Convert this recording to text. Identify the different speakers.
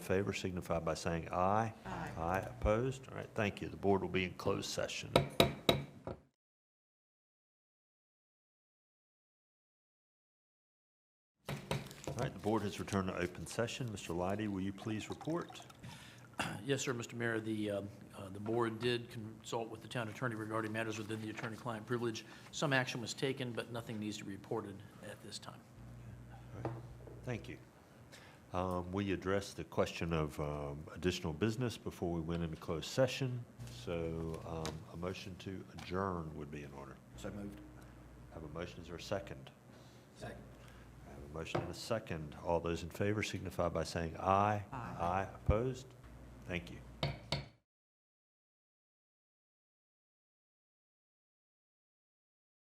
Speaker 1: favor signify by saying aye. Aye. Aye, opposed? All right, thank you. The board will be in closed session. All right, the board has returned to open session. Mr. Leidy, will you please report?
Speaker 2: Yes, sir, Mr. Mayor, the, um, uh, the board did consult with the town attorney regarding matters within the attorney-client privilege. Some action was taken, but nothing needs to be reported at this time.
Speaker 1: Thank you. Um, We addressed the question of um, additional business before we went into closed session, so um, a motion to adjourn would be in order.
Speaker 3: So moved.
Speaker 1: Have a motion, is there a second?
Speaker 3: Second.
Speaker 1: I have a motion and a second. All those in favor signify by saying aye. Aye. opposed? Thank you.